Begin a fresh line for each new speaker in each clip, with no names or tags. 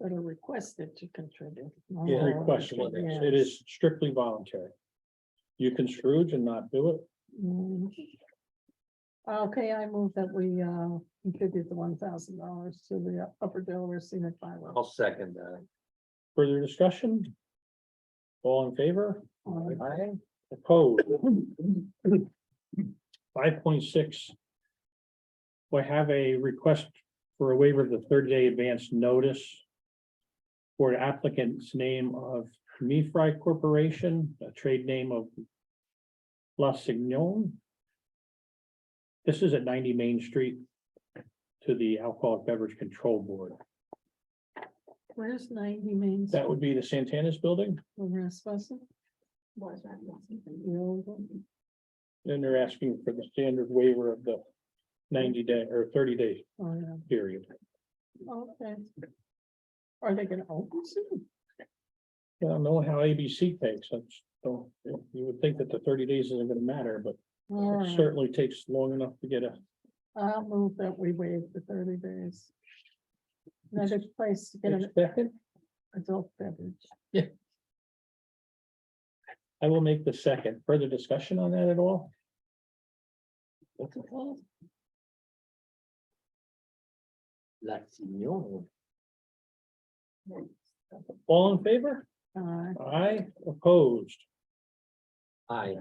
that are requested to contribute. Uh, no
Yeah,
more
request, it
than-
is.
yeah.
it is strictly voluntary. You can Scrooge and not do it,
Mm. Okay, I move that we uh contribute the one thousand dollars to the Upper Delaware Scenic Byway.
Oh,
I'll second that.
further discussion? All in favor?
Uh,
Aye.
Opposed? Five point six. We have a request for a waiver of the thirty day advance notice. For an applicant's name of Me Fry Corporation, a trade name of. La Signon. This is at ninety Main Street. To the Alcoholic Beverage Control Board.
Where's ninety Main?
That would be the Santana's building.
Rasmussen? Was that? The old one?
Then they're asking for the standard waiver of the ninety day or thirty day
Oh, yeah.
period.
Okay. Are they gonna open soon?
I don't know how ABC takes, I just don't, you would think that the thirty days isn't gonna matter, but
All
it
right,
certainly takes long enough to get a,
I'll move that we waive the thirty days. Another place to get an
second.
adult beverage.
I will make the second, further discussion on that at all?
What's it called? Latino.
All in favor?
Uh,
Aye. opposed,
Aye.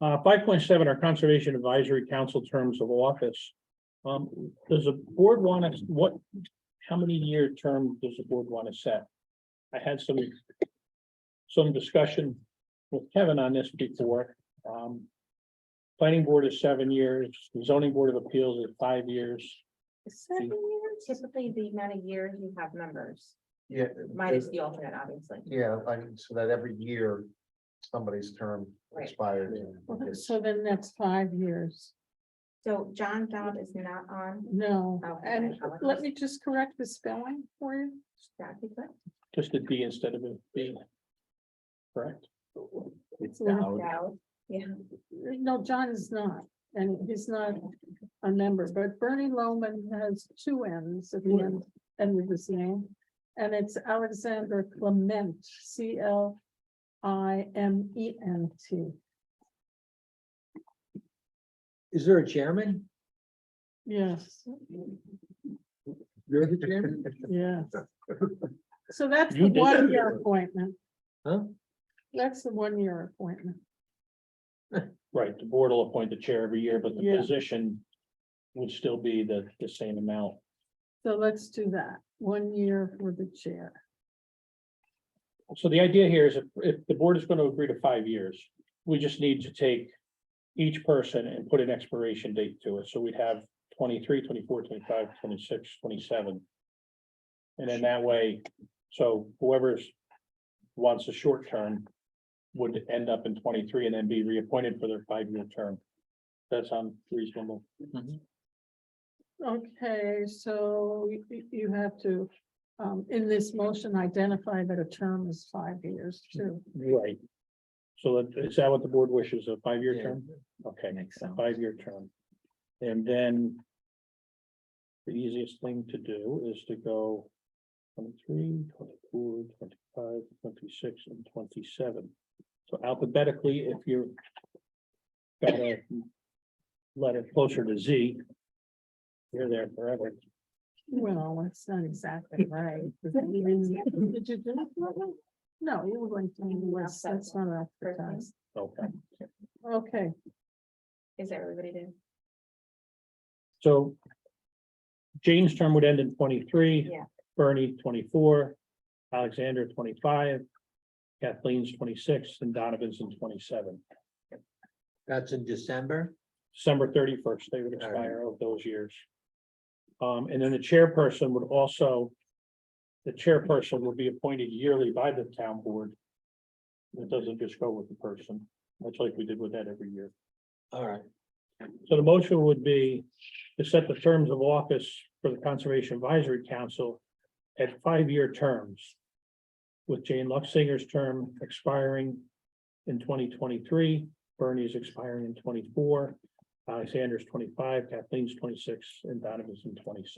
uh, five point seven, our Conservation Advisory Council terms of office. Um, does the board want to, what, how many year term does the board want to set? I had some, some discussion with Kevin on this before. Um, Planning Board is seven years, zoning board of appeals is five years.
Seven years, typically the amount of years you have members,
Yeah.
minus
it-
the alternate, obviously.
Yeah, I mean, so that every year, somebody's term
Right.
expires.
well, so then that's five years.
So John Dodd is not on,
No,
Okay,
and
I like
let
this.
me just correct the spelling for you.
that'd be good.
Just a D instead of a B. Correct?
It's
Dowd, Yeah,
No, John is not, and he's not a member, but Bernie Loman has two N's at the end, end of his name. And it's Alexander Clement, C L I M E N T.
Is there a chairman?
Yes,
You're the chairman?
yes. So that's the
You did.
one year appointment,
Huh?
that's the one year appointment.
Right, the board will appoint the chair every year, but the
Yeah.
position would still be the, the same amount.
So let's do that, one year for the chair.
So the idea here is if, if the board is gonna agree to five years, we just need to take. Each person and put an expiration date to it, so we'd have 23, 24, 25, 26, 27, And then that way, so whoever's wants a short term. Would end up in twenty-three and then be reappointed for their five-year term. That sound reasonable.
Okay, so you- you, you have to, um, in this motion, identify that a term is five years too.
Right. So that- is that what the board wishes, a five-year
Yeah.
term? Okay.
Makes sense.
five-year term. And then. The easiest thing to do is to go. 23, 24, 25, 26, and twenty-seven. So alphabetically, if you're. Got a. Letter closer to Z. You're there forever.
Well, that's not exactly right. Did you do it that way? No, you were going to, do this. that's not advertised.
Okay,
Okay,
is everybody doing?
so. Jane's term would end in twenty-three.
Yeah.
Bernie, twenty-four. Alexander, twenty-five. Kathleen's twenty-six and Donovan's in twenty-seven.
That's in December?
December thirty-first, they would
All right.
expire of those years. Um, and then the chairperson would also, the chairperson would be appointed yearly by the town board. It doesn't just go with the person, much like we did with that every year.
All right.
So the motion would be to set the terms of office for the Conservation Advisory Council at five-year terms. With Jane Luxinger's term expiring in twenty twenty-three, Bernie's expiring in twenty-four, Alexander's twenty-five, Kathleen's twenty-six, and Donovan's in twenty-seven.